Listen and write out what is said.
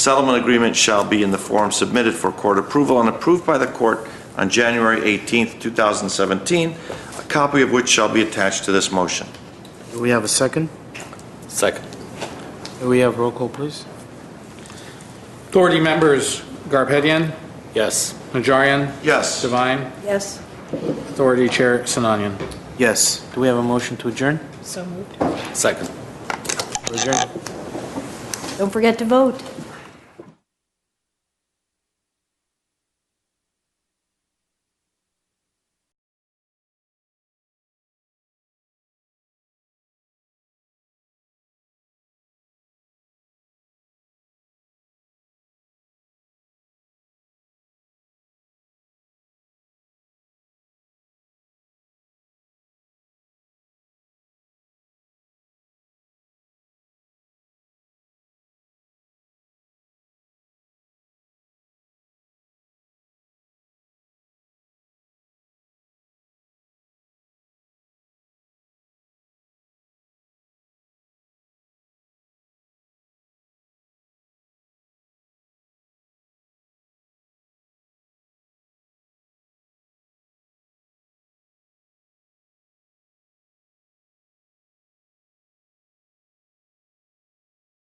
Settlement agreement shall be in the form submitted for court approval and approved by the court on January 18, 2017, a copy of which shall be attached to this motion. Do we have a second? Second. Do we have roll call, please? Authority members, Garpetian, Yes. Najarian, Yes. Devine, Yes. Authority Chair Sinanian. Yes. Do we have a motion to adjourn? So moved. Second. Adjourn. Don't forget to vote.